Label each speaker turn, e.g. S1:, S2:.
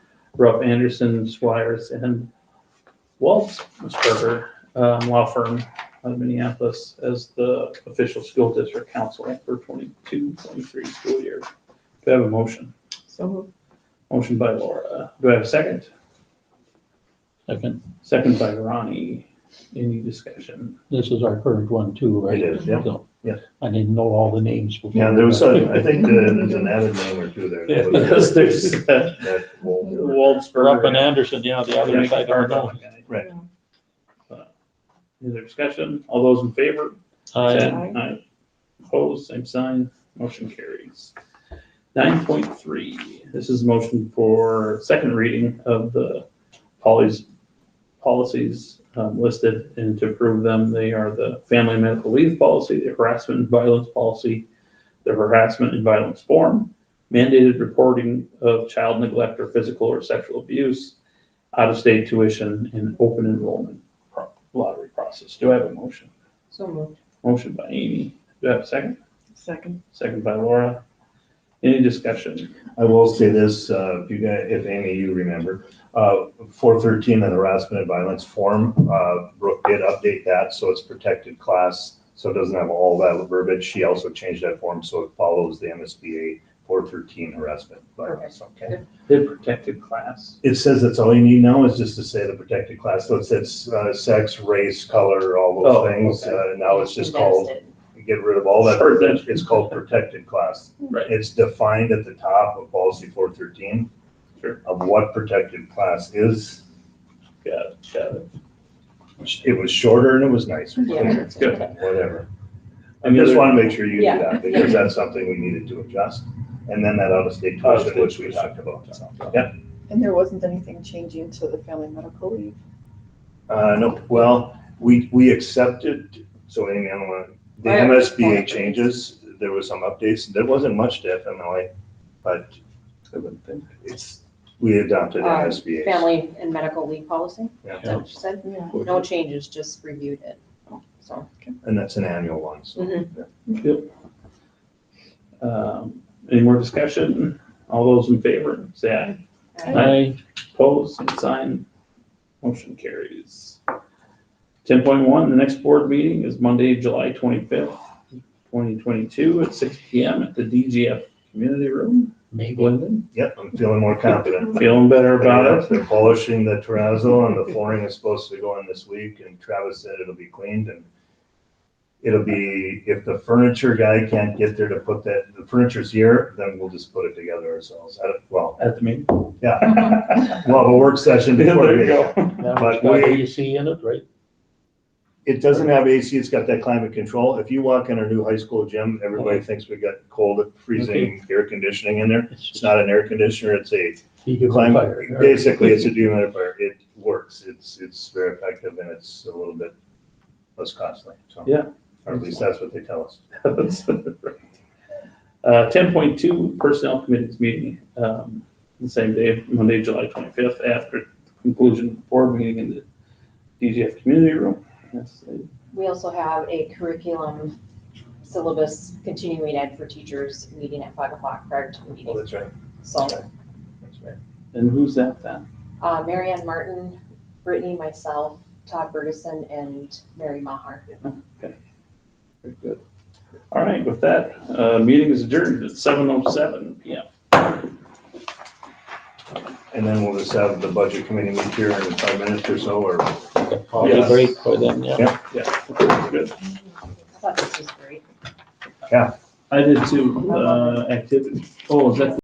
S1: Rupp Anderson, Swires, and Waltzberger um, Law Firm out of Minneapolis as the official school district council for 22, 23 school year. Do I have a motion?
S2: So moved.
S1: Motion by Laura. Do I have a second?
S3: Second,
S1: Second by Ronnie. Any discussion?
S3: this is our current one too, right?
S4: It is, yeah.
S3: So,
S4: Yes.
S3: I didn't know all the names. before.
S4: Yeah, there was, a- I think the- there's an added name or two there.
S1: Yeah, Because there's uh,
S4: That will-
S1: Waltzberger.
S3: Rupp and Anderson, yeah, the other side, I don't know.
S4: Right.
S1: Any other discussion? All those in favor?
S3: I,
S2: Aye.
S1: Aye. Opposed, same sign, motion carries. Nine point three, this is motion for second reading of the policies, policies um, listed and to approve them. They are the family medical leave policy, the harassment and violence policy, the harassment and violence form, mandated reporting of child neglect or physical or sexual abuse, out-of-state tuition, and open enrollment pro- lottery process. Do I have a motion?
S2: So moved.
S1: Motion by Amy. Do I have a second?
S2: Second.
S1: Second by Laura. Any discussion?
S4: I will say this, uh, if you guys, if Amy, you remember, uh, four thirteen and harassment and violence form, uh, Brooke did update that, so it's protected class. So it doesn't have all that verbiage. She also changed that form, so it follows the MSBA four thirteen harassment. violence, okay?
S1: Did protected class.
S4: It says that's all you need now is just to say the protected class. So it says, uh, sex, race, color, all
S1: Oh,
S4: those things.
S1: okay.
S4: Uh, now it's just
S2: And that's
S4: called,
S2: it.
S4: get rid of all that
S1: Sure, that's-
S4: verbiage. It's called protected class.
S1: Right.
S4: It's defined at the top of policy four thirteen.
S1: Sure.
S4: Of what protected class is.
S1: Got it, got it.
S4: It was shorter and it was nicer.
S2: Yeah, that's
S1: Good.
S4: Whatever. I
S1: Any
S4: just
S1: other-
S4: want to make sure you do
S2: Yeah.
S4: that because that's something we needed to adjust. And then that out-of-state tuition, which we talked about. Yep.
S2: And there wasn't anything changing to the family medical leave.
S4: Uh, no, well, we, we accepted, so Amy, I don't want, the
S2: I-
S4: MSBA changes, there was some updates. There wasn't much to FMLA, but it's, we adopted
S5: Um,
S4: MSBA.
S5: Family and medical leave policy,
S4: Yeah.
S5: is that what you said?
S2: Yeah.
S5: No changes, just reviewed it, so.
S4: And that's an annual one, so.
S5: Mhm.
S1: Um, Any more discussion? All those in favor, say aye.
S3: I,
S1: Opposed, same sign. Motion carries. Ten point one, the next board meeting is Monday, July twenty-fifth, twenty twenty-two at six P M at the D G F Community Room.
S3: maybe,
S1: Glendon,
S4: Yep, I'm feeling more confident.
S1: feeling better about it?
S4: They're polishing the terrazzo and the flooring is supposed to go in this week and Travis said it'll be cleaned and it'll be, if the furniture guy can't get there to put that, the furniture's here, then we'll just put it together ourselves. I don't- Well,
S1: At the meeting?
S4: yeah. We'll have a work session before the
S1: There you
S4: meeting.
S1: go.
S3: that
S4: But
S3: was got
S4: we-
S3: AC in it, right?
S4: It doesn't have AC, it's got that climate control. If you walk in our new high school gym, everybody thinks we got cold, freezing air conditioning in there. It's not an air conditioner, it's a Climate,
S3: Dehumidifier.
S4: basically, it's a dehumidifier. It works. It's, it's very effective and it's a little bit less costly, so.
S1: Yeah.
S4: Or at least that's what they tell us.
S1: Uh, ten point two, personnel committee's meeting, um, the same day, Monday, July twenty-fifth, after conclusion of the board meeting in the DGF community room. Yes, I-
S5: We also have a curriculum syllabus continuing ed for teachers meeting at five o'clock prior to the
S4: Oh,
S5: meeting.
S4: that's right.
S5: So,
S4: That's right.
S1: And who's that then?
S5: uh, Mary Ann Martin, Brittany, myself, Todd Bergeson, and Mary Maher.
S1: Very good. All right, with that, uh, meeting is adjourned at seven oh seven P M.
S4: And then we'll just have the budget committee meet here in five minutes or so, or
S3: Coffee
S1: Yes.
S3: break for them, yeah.
S1: Yeah, good.
S5: I thought this was great.
S1: I did too, uh, activity. Oh, is that